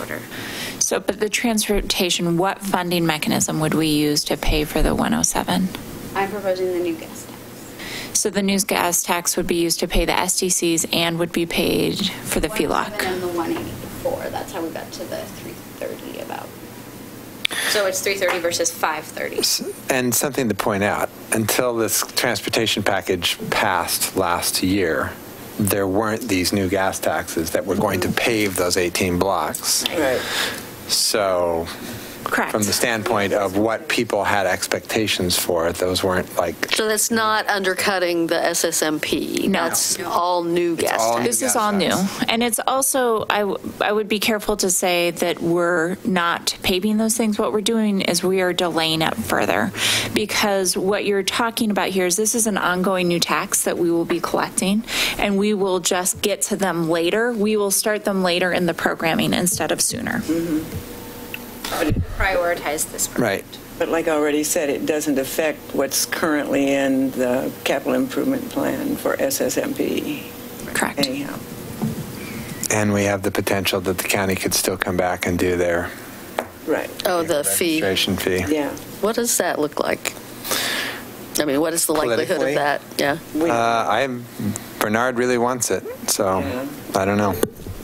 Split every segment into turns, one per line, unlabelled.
order.
So, but the transportation, what funding mechanism would we use to pay for the 107?
I'm proposing the new gas tax.
So the news gas tax would be used to pay the SDCs and would be paid for the E
And
FELOC.
the 184, that's how we got to the 330 about. So it's 330 versus 530.
And something to point out, until this transportation package passed last year, there weren't these new gas taxes that were going to pave those 18 blocks.
Right.
So from the
Correct.
standpoint of what people had expectations for, those weren't like,
So that's not undercutting the SSMP.
No.
That's all new gas
all
tax.
This is all new. And it's also, I, w- I would be careful to say that we're not paving those things. What we're doing is we are delaying it further. Because what you're talking about here is this is an ongoing new tax that we will be collecting. And we will just get to them later. We will start them later in the programming instead of sooner.
Prioritize this.
right.
But like I already said, it doesn't affect what's currently in the capital improvement plan for SSMP
Correct.
anyhow.
And we have the potential that the county could still come back and do their
Right,
Oh, the fee.
registration fee.
yeah.
What does that look like? I mean, what is the likelihood
Politically?
of that? Yeah.
We-
Uh, I, Bernard really wants it, so
Yeah.
I don't know.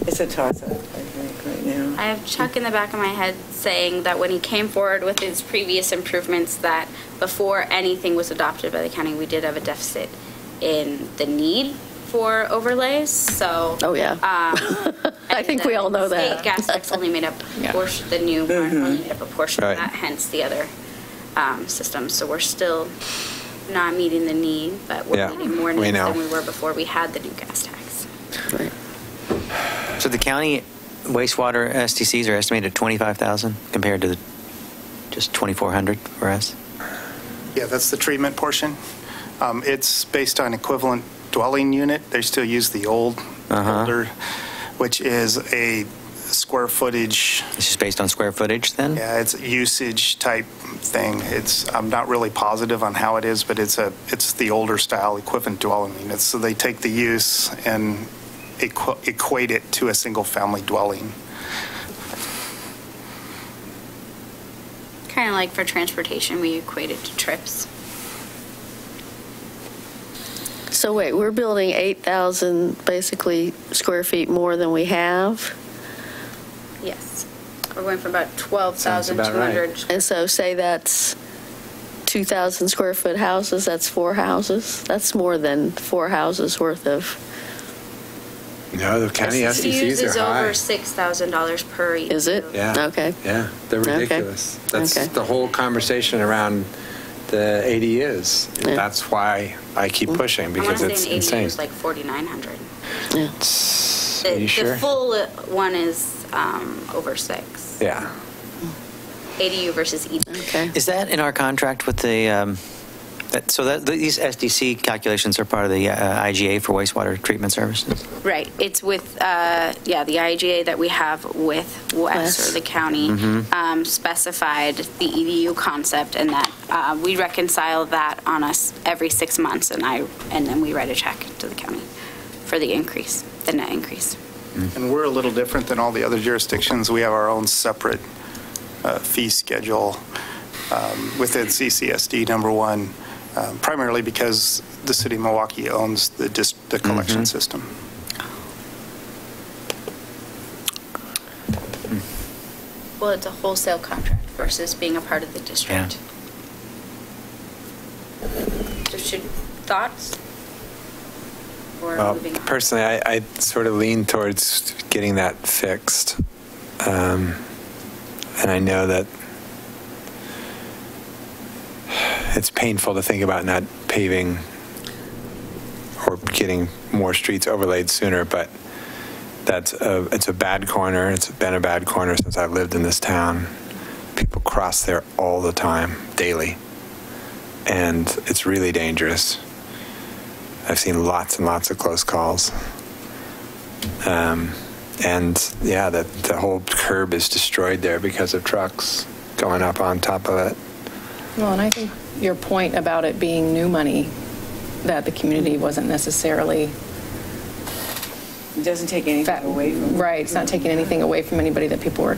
It's a toss-up, I think, right now.
I have Chuck in the back of my head saying that when he came forward with his previous improvements, that before anything was adopted by the county, we did have a deficit in the need for overlays, so. um,
Oh, yeah.
I
think we all know that.
Uh, State gas tax only made up a
Yeah.
portion, the new one only made up a portion of
Mm-hmm. Right.
that, hence the other um, system. So we're still not meeting the need, but we're
Yeah,
meeting more
we
needs
know.
than we were before we had the new gas tax.
Right.
So the county wastewater STCs are estimated at 25,000 compared to the- just 2,400 for us?
Yeah, that's the treatment portion. Um, It's based on equivalent dwelling unit. They still use the old,
Uh-huh.
older, which is a square footage,
It's just based on square footage then?
yeah, it's usage type thing. It's, I'm not really positive on how it is, but it's a, it's the older style equivalent dwelling units. So they take the use and equa- equate it to a single-family dwelling.
Kind of like for transportation, we equated to trips.
So wait, we're building 8,000 basically square feet more than we have?
Yes. We're going from about
Sounds about right.
12,200.
And so say that's 2,000 square foot houses, that's four houses? That's more than four houses worth of,
No, the county
Used
SDCs
is
are high.
over $6,000 per.
is it?
Yeah.
Okay.
Yeah, they're
Okay.
ridiculous. That's
Okay.
the whole conversation around the ADUs.
Yeah. Mm.
That's why I keep pushing
I want
because
to
it's
say an ADU
insane.
is like 4,900.
Yeah.
Are
The-
you sure?
The full one is um, over six.
Yeah.
ADU versus E EDU.
Okay.
Is that in our contract with the, um, that- so that, these SDC calculations are part of the uh, IGA for wastewater treatment services?
Right, it's with, uh, yeah, the IGA that we have with West
Wes.
or the county um, specified the EDU concept and that uh, we reconcile that on us every six months and I, and then we write a check to the county for the increase, the net increase.
And we're a little different than all the other jurisdictions. We have our own separate uh, fee schedule um, within CCSD, number one, um, primarily because the city of Milwaukee owns the dis- the collection system.
Well, it's a wholesale contract versus being a part of the district. So should, thoughts? Or
Well,
moving on?
personally, I, I sort of lean towards getting that fixed. Um, and I know that it's painful to think about not paving or getting more streets overlaid sooner, but that's a, it's a bad corner. It's been a bad corner since I've lived in this town. People cross there all the time, daily. And it's really dangerous. I've seen lots and lots of close calls. Um, and yeah, that the whole curb is destroyed there because of trucks going up on top of it.
Well, and I think your point about it being new money, that the community wasn't necessarily
It doesn't take anything
That-
away from
Right, it's not taking anything away from anybody that people were